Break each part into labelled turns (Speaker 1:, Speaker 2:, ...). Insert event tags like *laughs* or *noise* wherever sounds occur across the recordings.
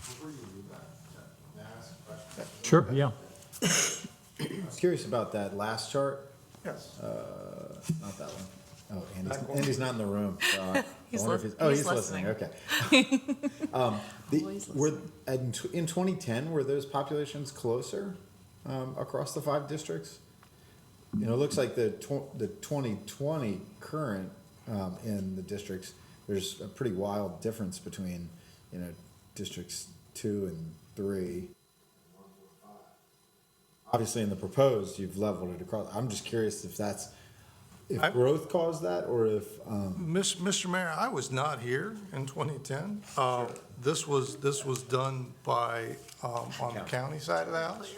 Speaker 1: through that, that, may I ask a question?
Speaker 2: Sure, yeah.
Speaker 3: I was curious about that last chart, Uh,
Speaker 1: Yes.
Speaker 3: not that one. Oh, Andy's, Andy's not in the
Speaker 4: *laughs*
Speaker 3: room, so I I
Speaker 4: He's
Speaker 3: wonder if
Speaker 4: lis-
Speaker 3: he's, oh,
Speaker 4: he's
Speaker 3: he's listening, okay. Um, the-
Speaker 4: Always
Speaker 3: Were, in tw- in twenty ten, were those populations closer, um, across the five districts? You know, it looks like the tw- the twenty twenty current, um, in the districts, there's a pretty wild difference between, you know, districts two and three. Obviously, in the proposed, you've leveled it across. I'm just curious if that's, if
Speaker 1: I-
Speaker 3: growth caused that or if, um,
Speaker 1: Miss- Mr. Mayor, I was not here in 2010. Uh, This was, this was done by, um, on the county side of the house.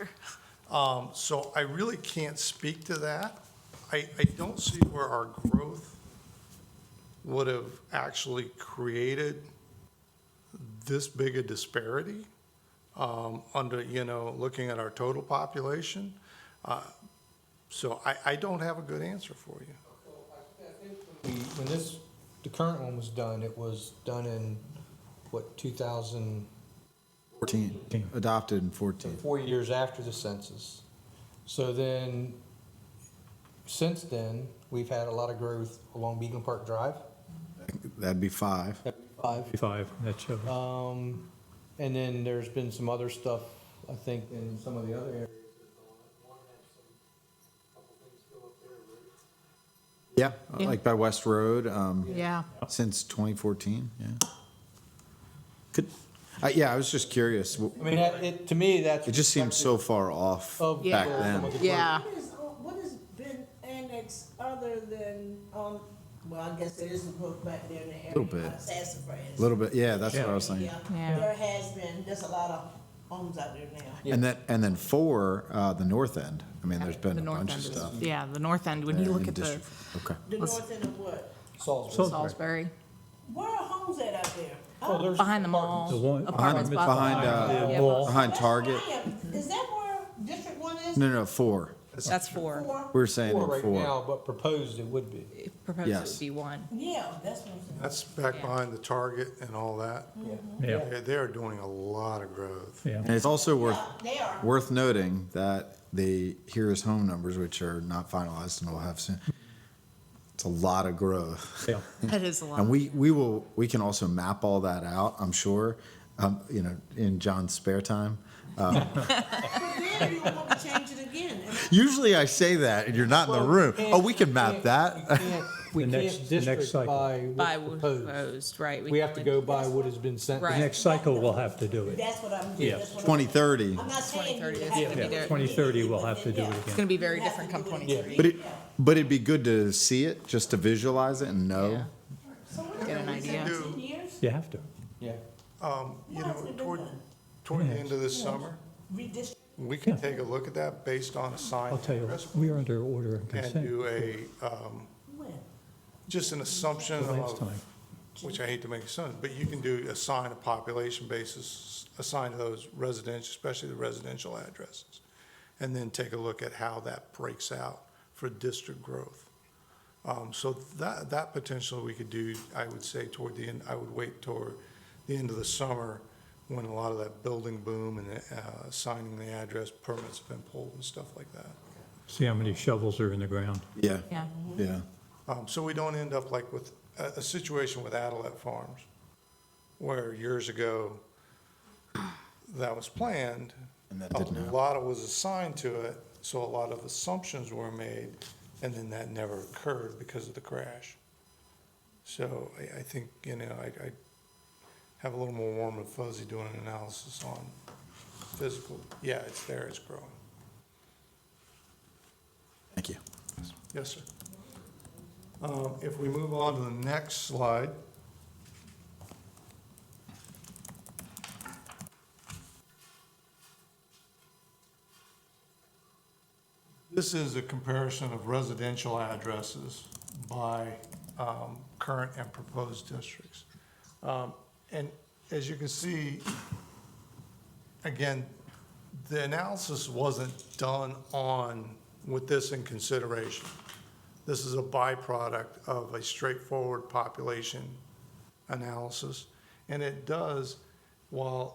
Speaker 1: Um, So I really can't speak to that. I, I don't see where our growth would have actually created this big a disparity um, under, you know, looking at our total population. Uh, So I, I don't have a good answer for you.
Speaker 5: We, when this, the current one was done, it was done in, what, two thousand,
Speaker 3: Fourteen, adopted in fourteen.
Speaker 5: four years after the census. So then, since then, we've had a lot of growth along Beacon Park Drive.
Speaker 3: That'd be five.
Speaker 5: Five.
Speaker 2: Five, that shows.
Speaker 5: Um, and then there's been some other stuff, I think, in some of the other areas.
Speaker 3: Yeah,
Speaker 4: Yeah.
Speaker 3: like by West Road, um,
Speaker 4: Yeah.
Speaker 3: since twenty fourteen, yeah. Could, I yeah, I was just curious. W-
Speaker 5: I mean, that, it, to me, that's.
Speaker 3: It just seems so far off
Speaker 5: Of-
Speaker 3: back
Speaker 4: Yeah.
Speaker 3: then.
Speaker 5: Some of the-
Speaker 4: Yeah.
Speaker 6: What is, uh, what has been annexed other than, um, well, I guess there is a book back there in the area.
Speaker 3: Little bit.
Speaker 6: uh, Sassafras.
Speaker 3: A little bit, yeah, that's what I was thinking.
Speaker 6: Yeah,
Speaker 4: Yeah.
Speaker 6: there has been, there's a lot of homes out there now.
Speaker 3: And then, and then four, uh, the north end. I mean, there's been
Speaker 4: The
Speaker 3: a
Speaker 4: north
Speaker 3: bunch of
Speaker 4: end is-
Speaker 3: stuff.
Speaker 4: Yeah, the north end, when
Speaker 3: there
Speaker 4: you look
Speaker 3: in
Speaker 4: at the
Speaker 3: District- Okay.
Speaker 6: The
Speaker 4: Let's-
Speaker 6: north end of what?
Speaker 5: Salisbury.
Speaker 4: Salisbury,
Speaker 6: Where are homes at out there?
Speaker 3: Oh,
Speaker 5: Well, oh, there's
Speaker 4: behind the
Speaker 5: apartments.
Speaker 2: The
Speaker 4: mall,
Speaker 2: one-
Speaker 4: apartments by the mall.
Speaker 3: Behind, uh,
Speaker 4: Yeah,
Speaker 2: wall.
Speaker 4: but-
Speaker 3: behind Target.
Speaker 6: That's where I am. Is that where District One is?
Speaker 3: No, no, four.
Speaker 4: That's four.
Speaker 6: Or-
Speaker 3: We were saying
Speaker 5: Four
Speaker 3: in
Speaker 5: right
Speaker 3: four.
Speaker 5: now, but proposed it would be.
Speaker 4: Proposed it
Speaker 3: Yes.
Speaker 4: would be one.
Speaker 6: Yeah, that's what I'm saying.
Speaker 1: That's back
Speaker 4: Yeah.
Speaker 1: behind the Target and all that.
Speaker 2: Yeah,
Speaker 1: They- They are doing a lot of growth.
Speaker 2: yeah.
Speaker 3: And it's also worth,
Speaker 6: Yeah, Uh, They are.
Speaker 3: worth noting that the here is home numbers, which are not finalized and we'll have soon. It's a lot of growth.
Speaker 2: yeah.
Speaker 4: That is a
Speaker 3: *laughs*
Speaker 4: lot.
Speaker 3: And we, we will, we can also map all that out, I'm sure, um, you know, in John's spare time.
Speaker 6: But then you don't want to change it again. And
Speaker 3: Usually I say that and you're not in the room. Oh, we can map that.
Speaker 5: We
Speaker 2: The next-
Speaker 5: can't
Speaker 2: the next
Speaker 5: district
Speaker 2: cycle.
Speaker 5: by
Speaker 4: By w-
Speaker 5: what's proposed.
Speaker 4: proposed, right.
Speaker 5: We have to
Speaker 4: can
Speaker 5: go
Speaker 4: only-
Speaker 5: by what has been sent.
Speaker 4: Right.
Speaker 2: Next cycle, we'll have to do it.
Speaker 6: That's what I'm,
Speaker 2: Yeah.
Speaker 6: that's what I'm.
Speaker 3: *laughs* Twenty thirty.
Speaker 6: I'm not saying you
Speaker 4: 2030 is
Speaker 6: have
Speaker 4: gonna
Speaker 6: to
Speaker 4: be
Speaker 6: do
Speaker 2: Yeah,
Speaker 6: it.
Speaker 4: there.
Speaker 2: twenty thirty, we'll have to do it
Speaker 4: It's
Speaker 2: again.
Speaker 4: gonna be very
Speaker 6: You have
Speaker 4: different
Speaker 6: to
Speaker 4: come
Speaker 6: do it again.
Speaker 4: twenty thirty.
Speaker 3: But it, but it'd be good to see it, just to visualize it and know.
Speaker 4: Yeah. Get an idea.
Speaker 6: Ten years?
Speaker 2: You have to.
Speaker 5: Yeah.
Speaker 1: Um, You
Speaker 6: Why hasn't
Speaker 1: know,
Speaker 6: it been
Speaker 1: toward,
Speaker 6: done?
Speaker 1: toward the end of this summer,
Speaker 6: Redistrict.
Speaker 1: we can
Speaker 2: Yeah.
Speaker 1: take a look at that based on a
Speaker 2: I'll
Speaker 1: sign
Speaker 2: tell you, we are under order and
Speaker 1: and
Speaker 2: consent
Speaker 1: do a, um,
Speaker 6: When?
Speaker 1: just an assumption
Speaker 2: the last
Speaker 1: of,
Speaker 2: time.
Speaker 1: which I hate to make a son, but you can do assign a population basis, assign to those residential, especially the residential addresses, and then take a look at how that breaks out for district growth. Um, So that, that potential we could do, I would say toward the end, I would wait toward the end of the summer when a lot of that building boom and uh, assigning the address permits have been pulled and stuff like that.
Speaker 2: See how many shovels are in the ground.
Speaker 3: Yeah,
Speaker 4: Yeah,
Speaker 3: yeah.
Speaker 1: Um, So we don't end up like with a, a situation with Adelet Farms, where years ago, that was planned.
Speaker 3: And that didn't
Speaker 1: A
Speaker 3: happen.
Speaker 1: lot of was assigned to it, so a lot of assumptions were made, and then that never occurred because of the crash. So I, I think, you know, I, I have a little more warm and fuzzy doing an analysis on physical, yeah, it's there, it's growing.
Speaker 3: Thank you.
Speaker 1: Yes, sir. Um, If we move on to the next slide. This is a comparison of residential addresses by um, current and proposed districts. Um, And as you can see, again, the analysis wasn't done on with this in consideration. This is a byproduct of a straightforward population analysis. And it does, while